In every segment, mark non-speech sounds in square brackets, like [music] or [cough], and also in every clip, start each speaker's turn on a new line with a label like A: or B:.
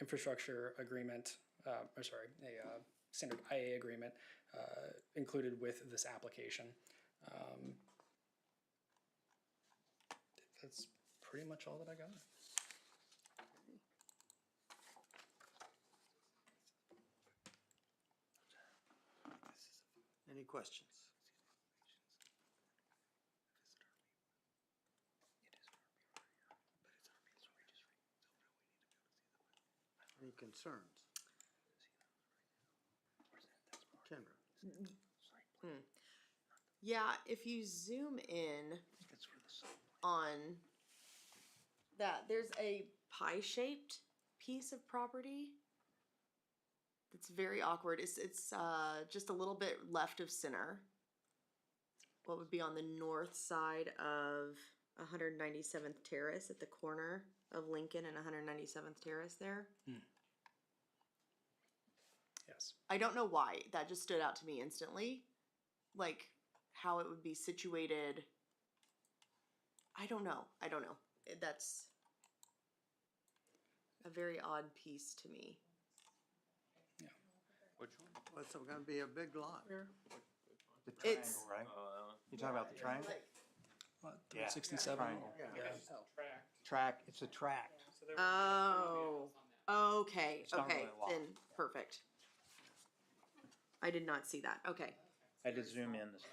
A: infrastructure agreement, uh, or sorry, a uh, standard IA agreement uh, included with this application. Um, That's pretty much all that I got.
B: Any questions? Any concerns? Kendra?
C: Yeah, if you zoom in on that, there's a pie shaped piece of property that's very awkward. It's it's uh, just a little bit left of center. What would be on the north side of 197th Terrace at the corner of Lincoln and 197th Terrace there?
A: Yes.
C: I don't know why that just stood out to me instantly, like how it would be situated. I don't know. I don't know. It- That's a very odd piece to me.
D: Which one?
B: Well, it's gonna be a big lot.
E: The
C: It's-
E: triangle, right? You're talking about the triangle?
A: Lot
E: Uh, Yeah.
A: 367.
E: Triangle.
B: Yeah.
E: Track, it's a tract.
C: Oh. Okay.
E: It's not
C: Okay.
E: really a lot.
C: Then perfect. I did not see that. Okay.
E: I did zoom in this.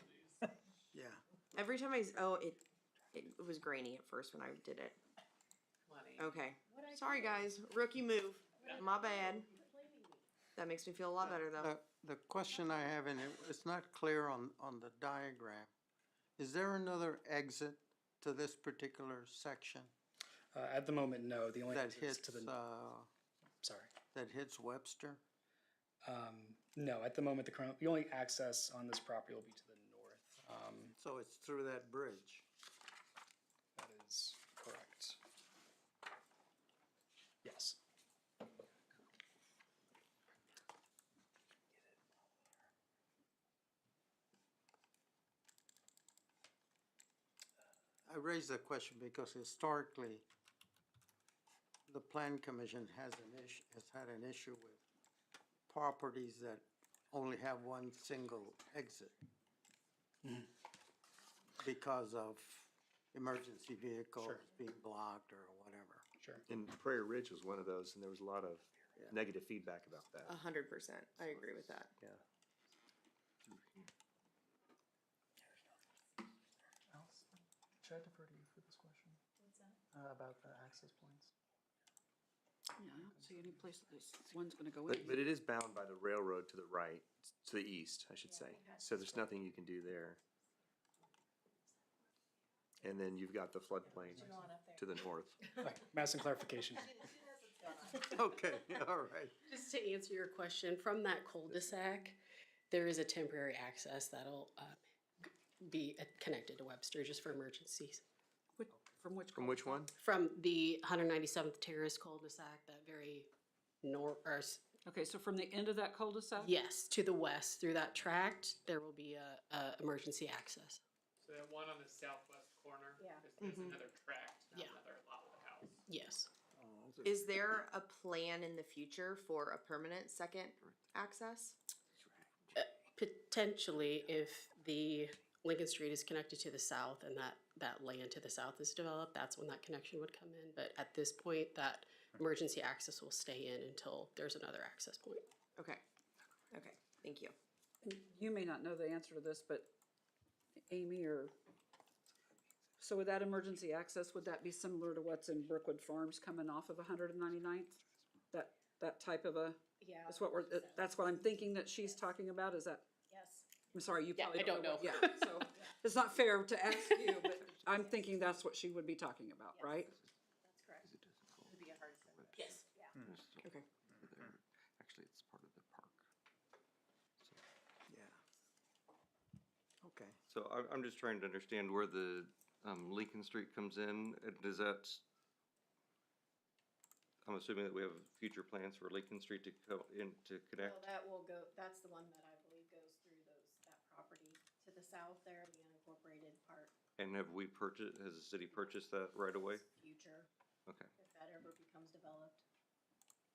B: Yeah.
C: Every time I s- oh it it was grainy at first when I did it. Okay. Sorry guys, rookie move. My bad. That makes me feel a lot better though.
B: The, Uh, the question I have, and it, it's not clear on, on the diagram, is there another exit to this particular section
A: Uh, At the moment, no, the only.
B: that
A: exit is
B: hits,
A: to the
B: uh,
A: Sorry. Um,
B: that hits Webster?
A: No, at the moment, the current, the only access on this property will be to the north. Um,
B: So it's through that bridge.
A: That is correct. Yes.
B: I raise that question because historically, the plan commission has an issue, has had an issue with properties that only have one single exit because of emergency vehicles
A: Sure.
B: being blocked or whatever. [laughs]
A: Sure.
F: And Prairie Ridge was one of those, and there was a lot of
B: Yeah.
F: negative feedback about
C: A
F: that.
C: hundred percent. I agree with that.
F: Yeah.
A: Should I defer to you for this question? What's that? About the access points?
G: Yeah, I don't see any place that this one's gonna go
F: But, but it
G: in.
F: is bound by the railroad to the right, to the east, I should say. So there's nothing you can do there. And then you've got the floodplain to the north.
A: Madison clarification.
B: Okay, all right.
H: Just to answer your question, from that cul-de-sac, there is a temporary access that'll uh, be uh, connected to Webster just for emergencies.
G: Which- From which?
F: From which one?
H: From the 197th Terrace cul-de-sac, that very nor, or, s-
G: Okay, so from the end of that cul-de-sac?
H: yes, to the west, through that tract, there will be a, a emergency access. Mm-hmm.
I: So that one on the southwest corner
C: Yeah.
I: is, is another tract, not
H: Yeah.
I: another lot of house.
H: Yes.
C: Is there a plan in the future for a permanent second access?
H: uh, Potentially, if the Lincoln Street is connected to the south and that, that land to the south is developed, that's when that connection would come in. But at this point, that emergency access will stay in until there's another access point.
C: Okay. Okay, thank you.
G: You may not know the answer to this, but Amy or, so with that emergency access, would that be similar to what's in Brookwood Farms coming off of 199th? That, that type of a?
H: Yeah.
G: That's what we're, that- that's what I'm thinking that she's talking about, is that?
H: Yes.
G: I'm sorry, you
H: Yeah,
G: probably
H: I
G: don't know.
H: don't
G: what- Yeah, so, it's not fair to ask you, but I'm thinking that's what she would be talking about, right?
J: That's correct. It would be a hard sell.
H: Yes.
J: Yeah.
C: Okay.
J: Actually, it's part of the park.
B: Yeah. Okay.
D: So I'm, I'm just trying to understand where the, um, Lincoln Street comes in, Uh, does that? s- I'm assuming that we have future plans for Lincoln Street to co- in, to
J: Well,
D: connect,
J: that will go, that's the one that I believe goes through those, that property to the south there, the unincorporated part,
D: and have we purchased, has the city purchased that right away?
J: future,
D: Okay,
J: if that ever becomes developed.